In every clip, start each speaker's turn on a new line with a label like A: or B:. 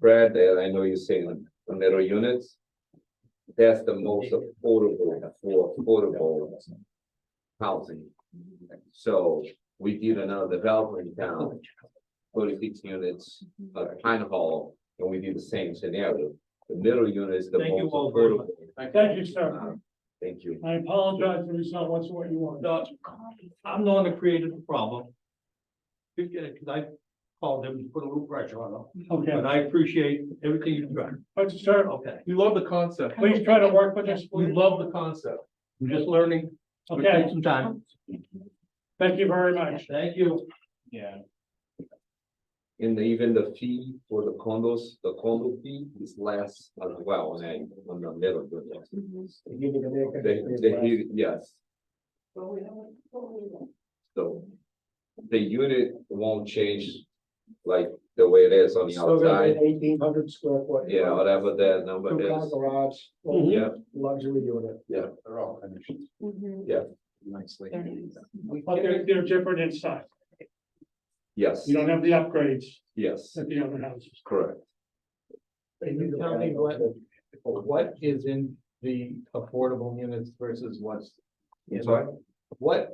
A: Brad, uh, I know you're saying the middle units. That's the most affordable for affordable housing. So we did another developer in town, forty-six units, uh,
B: Mm-hmm.
A: Pine Hall, and we did the same scenario. The middle unit is the
C: Thank you
A: most
C: all very
A: affordable.
C: much.
D: Thank you, sir.
A: Uh, Thank you.
D: I apologize if it's not what's what you want.
C: No, I'm the one that created the problem. Because I called them to put a little pressure on them,
D: Okay,
C: and I appreciate everything you've done,
D: but sir,
C: okay?
B: We love the concept.
D: please try to work with us.
B: We love the concept.
C: I'm just learning, it's gonna take
D: Okay,
C: some time,
D: thank you very much.
C: thank you.
B: Yeah.
A: And even the fee for the condos, the condo fee is less as well on a, on the middle unit.
B: Mm-hmm.
A: They, they, hear- yes. So. The unit won't change like the way it is on the outside,
E: Eighteen hundred square foot.
A: yeah, whatever that
E: Two
A: number
E: car
A: is,
E: garage,
D: Mhm.
A: yeah,
E: luxury unit.
B: They're all finished nicely.
D: But they're, they're different inside.
A: yes,
D: You don't have the upgrades
A: yes,
D: that the other houses.
A: correct.
B: Can you tell me what, what is in the affordable units versus what's?
A: I'm sorry?
B: What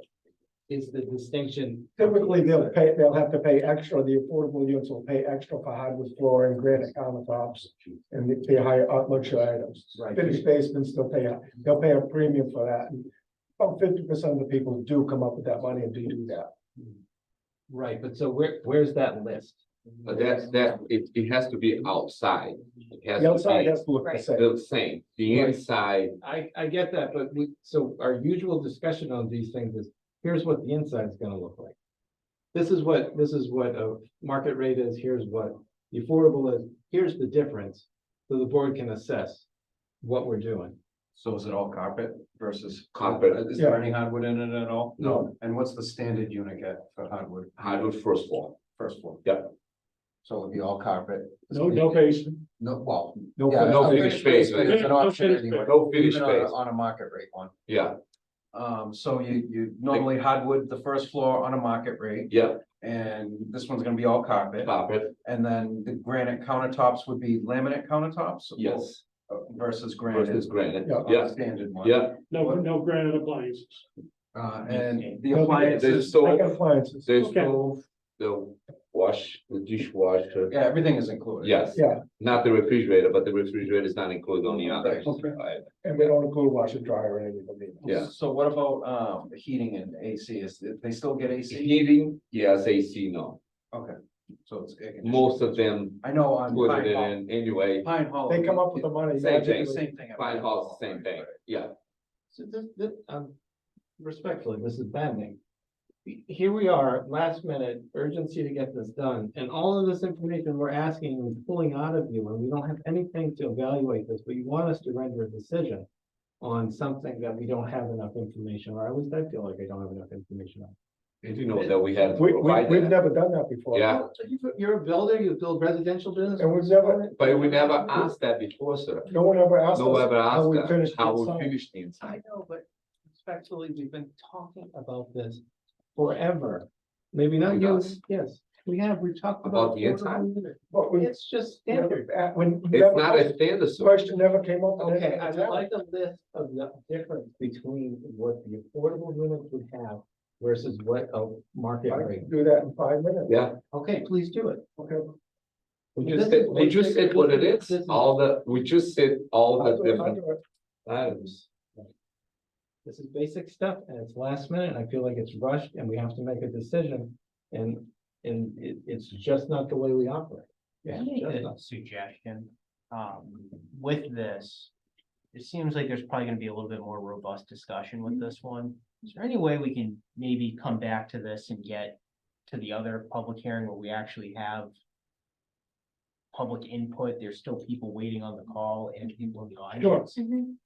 B: is the distinction?
E: Typically, they'll pay, they'll have to pay extra, the affordable units will pay extra for hardwood flooring, granite countertops. And the- the higher art luxury items,
B: Right.
E: finished basements, they'll pay, a- they'll pay a premium for that. And About fifty percent of the people do come up with that money and do do that.
B: Right, but so where, where's that list?
A: But that's, that, it, it has to be outside, it has
E: The outside
A: to
E: has to look the
F: Right.
A: be
E: same.
A: the same, the
B: Right.
A: inside,
B: I, I get that, but we, so our usual discussion on these things is, here's what the inside's gonna look like. This is what, this is what a market rate is, here's what the affordable is, here's the difference, so the board can assess what we're doing.
G: So is it all carpet versus?
A: Carpet.
G: Is there any hardwood in it at all?
A: No.
G: And what's the standard unit get for hardwood,
A: hardwood first floor,
G: first floor?
A: Yeah.
G: So it'll be all carpet?
D: No, no basement.
G: No, well.
E: No
G: yeah,
A: no
G: a
A: finished basement.
G: is an
D: No
G: option
D: finished
G: anyway,
A: no finished
G: even on a-
A: space,
G: On a market rate one.
A: yeah,
G: Um, so you, you normally hardwood the first floor on a market rate,
A: yeah,
G: and this one's gonna be all carpet.
A: carpet,
G: And then the granite countertops would be laminate countertops? or-
A: yes, versus
G: Versus granite.
A: granite,
E: Yeah.
G: uh,
A: yeah,
G: Standard one.
A: yeah,
D: No, no granite appliances.
G: Uh, and the
E: No,
A: there's
G: appliances,
E: Like
A: stove,
E: appliances,
A: there's
D: Okay.
A: stove, the wash, the dishwasher,
G: yeah, everything is included.
A: Yes,
E: yeah,
A: not the refrigerator, but the refrigerator is not included on the other.
E: Okay. and we don't include washer dryer or anything. of them.
A: Yeah.
G: So what about um the heating and AC? Is th- they still get AC?
A: Heating, yes, AC, no.
G: So it's. air conditioning.
A: Most of them
G: I know on
A: put it
G: Pine Hall.
A: in anyway.
G: Pine Hall.
E: They come up with the money.
A: Same
G: They
A: thing.
G: do the Same thing. at
A: Pine Hall's the same
G: right,
A: thing,
G: right.
A: yeah.
B: So this, this, um, respectfully, this is banding. Here we are, last minute, urgency to get this done, and all of this information we're asking and pulling out of you, and we don't have anything to evaluate this, but you want us to render a decision. On something that we don't have enough information, or at least I feel like I don't have enough information on.
A: Did you know that we had to
E: We, we,
A: provide
E: we've
A: that?
E: never done that before.
A: Yeah.
B: Well, you- You're a builder, you build residential business.
E: And we've never,
A: But we never asked that before, sir.
E: no one ever asked us.
A: No one ever
E: how
A: asked
E: we
A: that,
E: finished
A: how
E: inside.
A: we finish the inside.
B: I know, but respectfully, we've been talking about this forever. Maybe not
A: We
B: you,
A: got-
B: yes, we have, we've talked
A: About
B: about.
A: the inside?
B: affordable unit.
E: But we,
B: It's just standard.
E: never- uh, when.
A: It's not a standard,
E: The
A: sir.
E: Question never came up. in any
B: Okay, I
E: of the
B: would like a list of the difference between what the affordable units would have versus what a market
E: time. I
B: rate.
E: can do that in five minutes.
A: Yeah,
B: Okay, please do it.
E: Okay,
A: we
B: This
A: just
B: is
A: said, we just
B: basic-
A: said what it
B: this
A: is,
B: is-
A: all the, we just said all the
E: I'll do it, I'll
A: different
E: do it.
A: items.
B: This is basic stuff and it's last minute. and I feel like it's rushed and we have to make a decision. And, and it, it's just not the way we operate.
H: I
B: Yeah.
H: make a Suggestion, um, with this, it seems like there's probably gonna be a little bit more robust discussion with this one. Is there any way we can maybe come back to this and get to the other public hearing where we actually have public input? There's still people waiting on the call and people in the
D: Sure.
H: audience.
I: Mhm.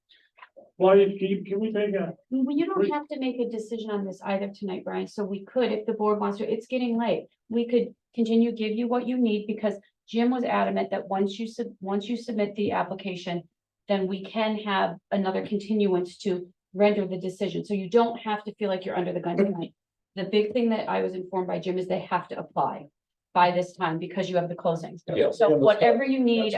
D: Why, can, can we take a,
I: Well, you don't
D: Great.
I: have to make a decision on this either tonight, Brian, so we could, if the board wants to, it's getting late. We could continue, give you what you need, because Jim was adamant that once you sub, once you submit the application, then we can have another continuance to render the decision, so you don't have to feel like you're under the gun tonight. The big thing that I was informed by Jim is they have to apply. by this time because you have the closings.
A: Yeah.
I: So whatever you need,